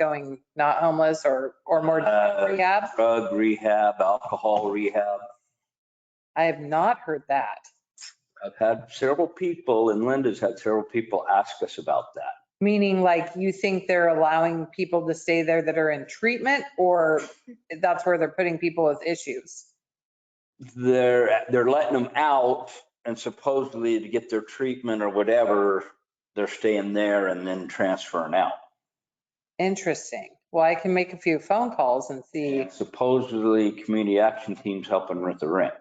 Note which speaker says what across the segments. Speaker 1: going not homeless or, or more
Speaker 2: Uh,
Speaker 1: rehab?
Speaker 2: Drug rehab, alcohol rehab.
Speaker 1: I have not heard that.
Speaker 2: I've had several people, and Linda's had several people ask us about that.
Speaker 1: Meaning like you think they're allowing people to stay there that are in treatment or that's where they're putting people with issues?
Speaker 2: They're, they're letting them out and supposedly to get their treatment or whatever, they're staying there and then transferring out.
Speaker 1: Interesting. Well, I can make a few phone calls and see.
Speaker 2: And Supposedly, community action teams helping with the rent.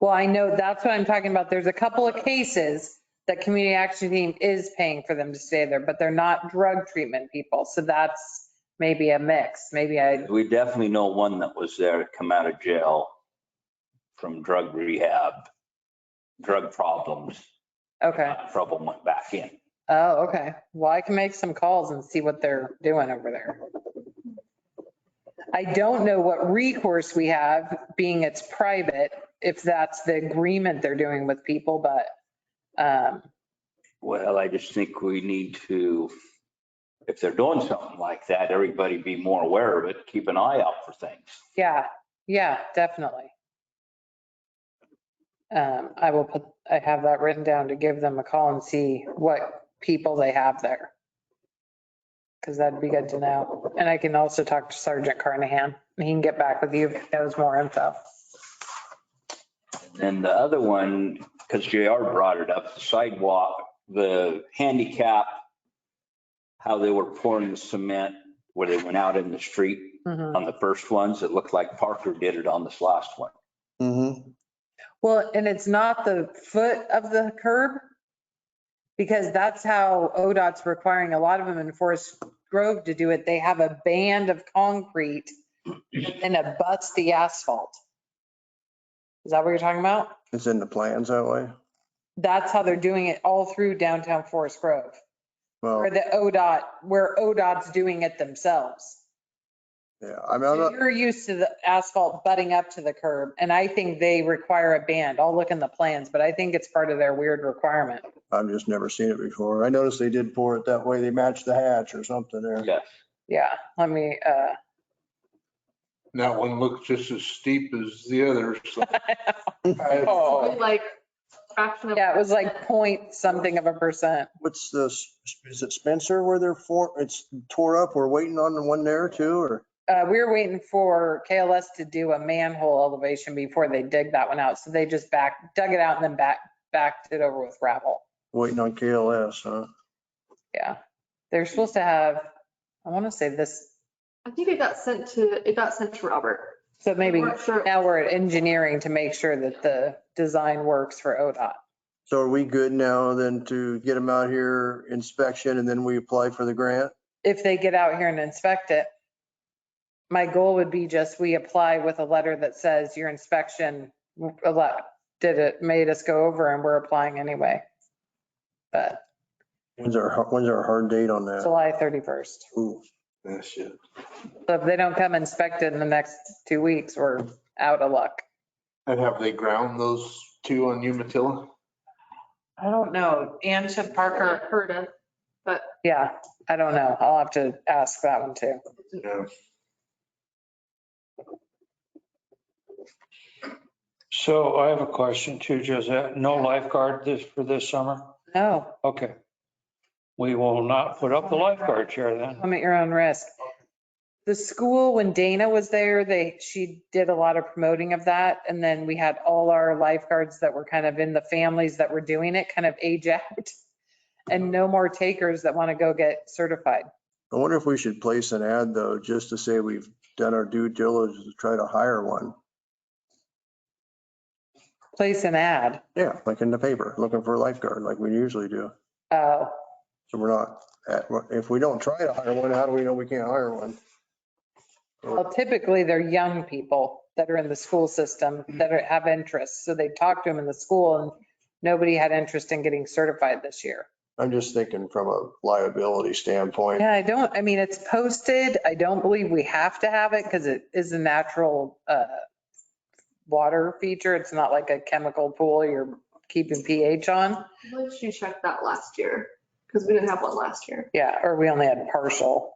Speaker 1: Well, I know that's what I'm talking about. There's a couple of cases that community action team is paying for them to stay there, but they're not drug treatment people. So that's maybe a mix. Maybe I,
Speaker 2: We definitely know one that was there to come out of jail from drug rehab, drug problems,
Speaker 1: okay.
Speaker 2: got in trouble, went back in.
Speaker 1: Oh, okay. Well, I can make some calls and see what they're doing over there. I don't know what recourse we have, being it's private, if that's the agreement they're doing with people, but, um,
Speaker 2: Well, I just think we need to, if they're doing something like that, everybody be more aware of it, keep an eye out for things.
Speaker 1: yeah, yeah, definitely. Um, I will put, I have that written down to give them a call and see what people they have there. Cause that'd be good to know. And I can also talk to Sergeant Carnahan. He can get back with you if he knows more info.
Speaker 2: And the other one, because JR brought it up, the sidewalk, the handicap, how they were pouring the cement where they went out in the street
Speaker 1: Mhm.
Speaker 2: on the first ones. It looked like Parker did it on this last one.
Speaker 3: Mm-hmm.
Speaker 1: Well, and it's not the foot of the curb? Because that's how ODOT's requiring a lot of them in Forest Grove to do it. They have a band of concrete and a bust the asphalt. Is that what you're talking about?
Speaker 3: It's in the plans that way.
Speaker 1: That's how they're doing it all through downtown Forest Grove,
Speaker 3: Well,
Speaker 1: or the ODOT, where ODOT's doing it themselves.
Speaker 3: yeah, I mean, I'm
Speaker 1: So
Speaker 3: not,
Speaker 1: You're used to the asphalt butting up to the curb, and I think they require a band. I'll look in the plans, but I think it's part of their weird requirement.
Speaker 3: I've just never seen it before. I noticed they did pour it that way. They matched the hatch or something there.
Speaker 2: Yes.
Speaker 1: Yeah, let me, uh,
Speaker 4: That one looks just as steep as the other. so. I-
Speaker 1: oh,
Speaker 5: Like fraction of.
Speaker 1: yeah, it was like point something of a percent.
Speaker 3: What's this? Is it Spencer where they're for, it's tore up? We're waiting on the one there too, or?
Speaker 1: Uh, we were waiting for KLS to do a manhole elevation before they dig that one out. So they just back, dug it out and then back, backed it over with gravel.
Speaker 3: Waiting on KLS, huh?
Speaker 1: Yeah. They're supposed to have, I want to say this,
Speaker 5: I think it got sent to, it got sent to Robert.
Speaker 1: so maybe
Speaker 5: I'm not sure.
Speaker 1: now we're at engineering to make sure that the design works for ODOT.
Speaker 3: So are we good now then to get them out here inspection and then we apply for the grant?
Speaker 1: if they get out here and inspect it, my goal would be just we apply with a letter that says your inspection allo- did it, made us go over and we're applying anyway. But
Speaker 3: When's our, when's our hard date on that?
Speaker 1: July 31st.
Speaker 3: Ooh,
Speaker 4: That's it.
Speaker 1: So if they don't come inspect it in the next two weeks, we're out of luck.
Speaker 4: And have they ground those two on Umatilla?
Speaker 1: I don't know. Ann said
Speaker 5: Heard it.
Speaker 1: Yeah, I don't know. I'll have to ask that one too.
Speaker 4: Yeah.
Speaker 6: So I have a question too, Josette. No lifeguard this, for this summer?
Speaker 1: No,
Speaker 6: Okay. We will not put up the lifeguard chair then.
Speaker 1: I'm at your own risk. The school, when Dana was there, they, she did a lot of promoting of that. And then we had all our lifeguards that were kind of in the families that were doing it, kind of age out. And no more takers that want to go get certified.
Speaker 3: I wonder if we should place an ad though, just to say we've done our due diligence to try to hire one.
Speaker 1: Place an ad.
Speaker 3: Yeah, like in the paper, looking for a lifeguard like we usually do.
Speaker 1: Oh,
Speaker 3: So we're not, at- if we don't try to hire one, how do we know we can't hire one?
Speaker 1: well, typically they're young people that are in the school system that are- have interests. So they talked to them in the school and nobody had interest in getting certified this year.
Speaker 3: I'm just thinking from a liability standpoint.
Speaker 1: Yeah, I don't, I mean, it's posted. I don't believe we have to have it because it is a natural uh, water feature. It's not like a chemical pool you're keeping pH on.
Speaker 5: Once you checked that last year, because we didn't have one last year.
Speaker 1: Yeah, or we only had partial.